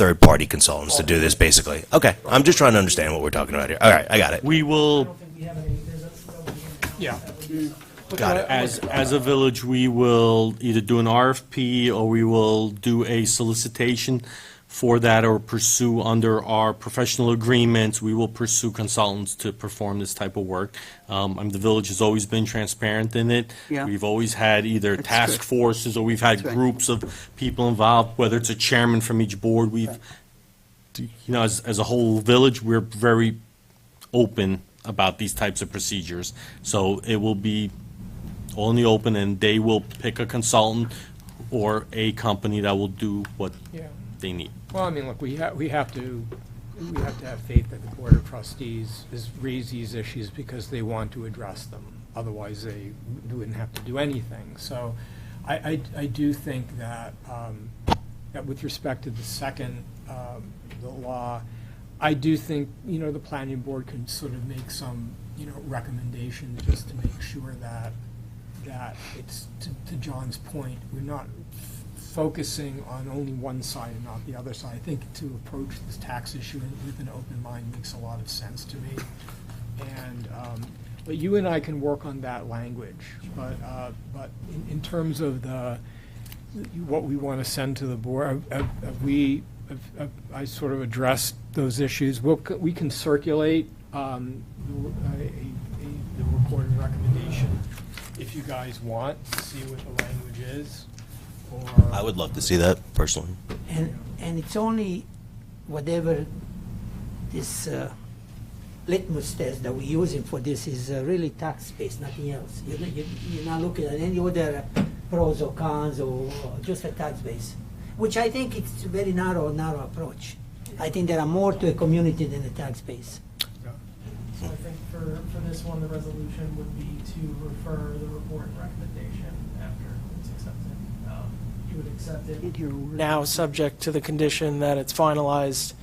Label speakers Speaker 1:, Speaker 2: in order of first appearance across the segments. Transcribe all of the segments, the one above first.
Speaker 1: third-party consultants to do this, basically. Okay, I'm just trying to understand what we're talking about here. All right, I got it.
Speaker 2: We will,
Speaker 3: Yeah.
Speaker 1: Got it.
Speaker 2: as, as a village, we will either do an RFP or we will do a solicitation for that or pursue under our professional agreements, we will pursue consultants to perform this type of work. Um, and the village has always been transparent in it.
Speaker 4: Yeah.
Speaker 2: We've always had either
Speaker 4: That's
Speaker 2: task
Speaker 4: good.
Speaker 2: forces or we've had
Speaker 4: That's right.
Speaker 2: groups of people involved, whether it's a chairman from each board, we've, you know, as, as a whole village, we're very open about these types of procedures. So it will be all in the open, and they will pick a consultant or a company that will do what
Speaker 3: Yeah.
Speaker 2: they need.
Speaker 3: Well, I mean, look, we have, we have to, we have to have faith that the Board of Trustees is, raise these issues because they want to address them. Otherwise, they wouldn't have to do anything. So I, I, I do think that, um, that with respect to the second, um, the law, I do think, you know, the planning board can sort of make some, you know, recommendations just to make sure that, that it's, to to John's point, we're not f- focusing on only one side and not the other side. I think to approach this tax issue with an open mind makes a lot of sense to me. And, um, but you and I can work on that language, but, uh, but in- in terms of the, what we want to send to the board, have- have- have we, have- have I sort of addressed those issues. We'll, c- we can circulate um, the a- a- the recorded recommendation if you guys want, to see what the language is, or.
Speaker 1: I would love to see that personally.
Speaker 5: And, and it's only whatever this uh, litmus test that we're using for this is uh, really tax based, nothing else. You're not, you're you're not looking at any other pros or cons or or just a tax base, which I think it's a very narrow, narrow approach. I think there are more to a community than a tax base.
Speaker 6: So I think for, for this one, the resolution would be to refer the report and recommendation after it's accepted. Um, You would accept it now, subject to the condition that it's finalized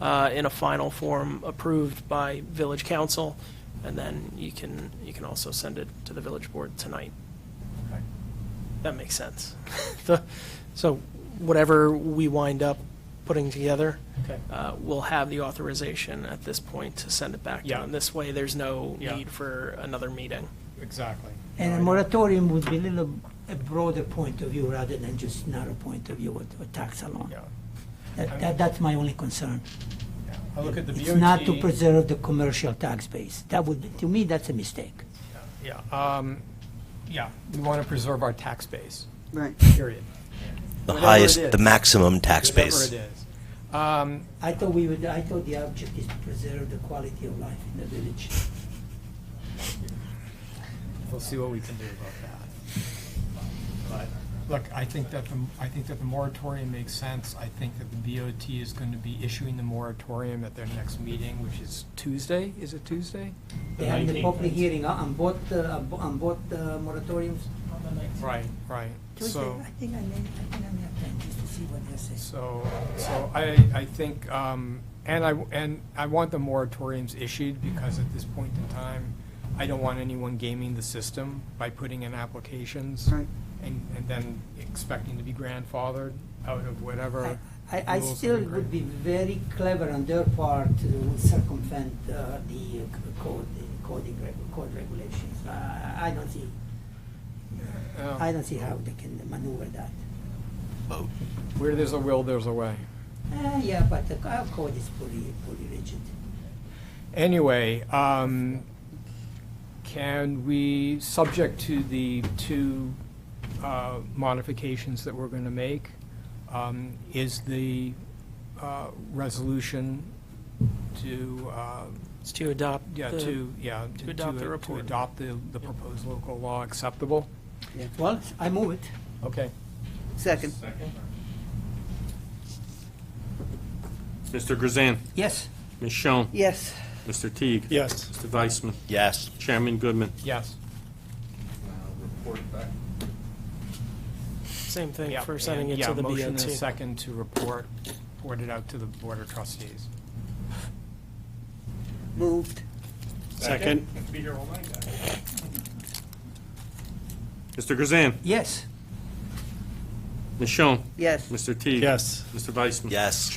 Speaker 6: uh, in a final form approved by village council, and then you can, you can also send it to the village board tonight. That makes sense. The- So whatever we wind up putting together,
Speaker 3: Okay.
Speaker 6: uh, we'll have the authorization at this point to send it back to
Speaker 3: Yeah.
Speaker 6: them. This way, there's no
Speaker 3: Yeah.
Speaker 6: need for another meeting.
Speaker 3: Exactly.
Speaker 5: And a moratorium would be a little, a broader point of view rather than just narrow point of view with, with tax alone.
Speaker 3: Yeah,
Speaker 5: That, that, that's my only concern.
Speaker 3: yeah. I look at the
Speaker 5: It's not to
Speaker 3: BOT.
Speaker 5: preserve the commercial tax base. That would, to me, that's a mistake.
Speaker 3: Yeah, um, yeah, we want to preserve our tax base,
Speaker 4: Right.
Speaker 3: period.
Speaker 1: The
Speaker 3: Whatever it
Speaker 1: highest, the
Speaker 3: is.
Speaker 1: maximum tax base.
Speaker 3: Whatever it is. Um,
Speaker 5: I thought we would, I thought the object is to preserve the quality of life in the village.
Speaker 3: We'll see what we can do about that. But, look, I think that the, I think that the moratorium makes sense. I think that the BOT is going to be issuing the moratorium at their next meeting, which is Tuesday, is it Tuesday?
Speaker 5: They had the public hearing on on both, uh, on bo- on both uh, moratoriums.
Speaker 3: Right, right.
Speaker 5: Tuesday,
Speaker 3: So,
Speaker 5: I think I may, I think I may have time just to see what they say.
Speaker 3: so, so I, I think, um, and I, and I want the moratoriums issued because at this point in time, I don't want anyone gaming the system by putting in applications.
Speaker 4: Right.
Speaker 3: And, and then expecting to be grandfathered out of
Speaker 5: I,
Speaker 3: whatever.
Speaker 5: I- I
Speaker 3: rules that
Speaker 5: still
Speaker 3: we create.
Speaker 5: would be very clever on their part to circumvent uh, the uh, c- code, the coding, reg- code regulations. I, I don't see,
Speaker 3: Oh.
Speaker 5: I don't see how they can maneuver that.
Speaker 3: Where there's a will, there's a way.
Speaker 5: Uh, yeah, but the our code is pretty, pretty rigid.
Speaker 3: Anyway, um, can we, subject to the two uh, modifications that we're going to make, um, is the uh, resolution to, uh,
Speaker 6: It's to adopt
Speaker 3: yeah,
Speaker 6: the-
Speaker 3: to, yeah.
Speaker 6: to adopt the report.
Speaker 3: To adopt the, the proposed local law acceptable?
Speaker 5: Well, I move it.
Speaker 3: Okay.
Speaker 4: Second.
Speaker 2: Mr. Grzan,
Speaker 5: Yes.
Speaker 2: Ms. Schoen,
Speaker 4: Yes.
Speaker 2: Mr. Teague.
Speaker 3: Yes.
Speaker 2: Mr. Weissman,
Speaker 1: Yes.
Speaker 2: Chairman Goodman.
Speaker 3: Yes.
Speaker 6: Same thing
Speaker 3: Yeah,
Speaker 6: for sending
Speaker 3: and-
Speaker 6: it to
Speaker 3: yeah,
Speaker 6: the
Speaker 3: Motion and a
Speaker 6: BOT.
Speaker 3: second to report, report it out to the Board of Trustees.
Speaker 4: Moved.
Speaker 2: Second. Mr. Grzan,
Speaker 5: Yes.
Speaker 2: Ms. Schoen,
Speaker 4: Yes.
Speaker 2: Mr. Teague.
Speaker 7: Yes.
Speaker 2: Mr. Weissman.
Speaker 1: Yes.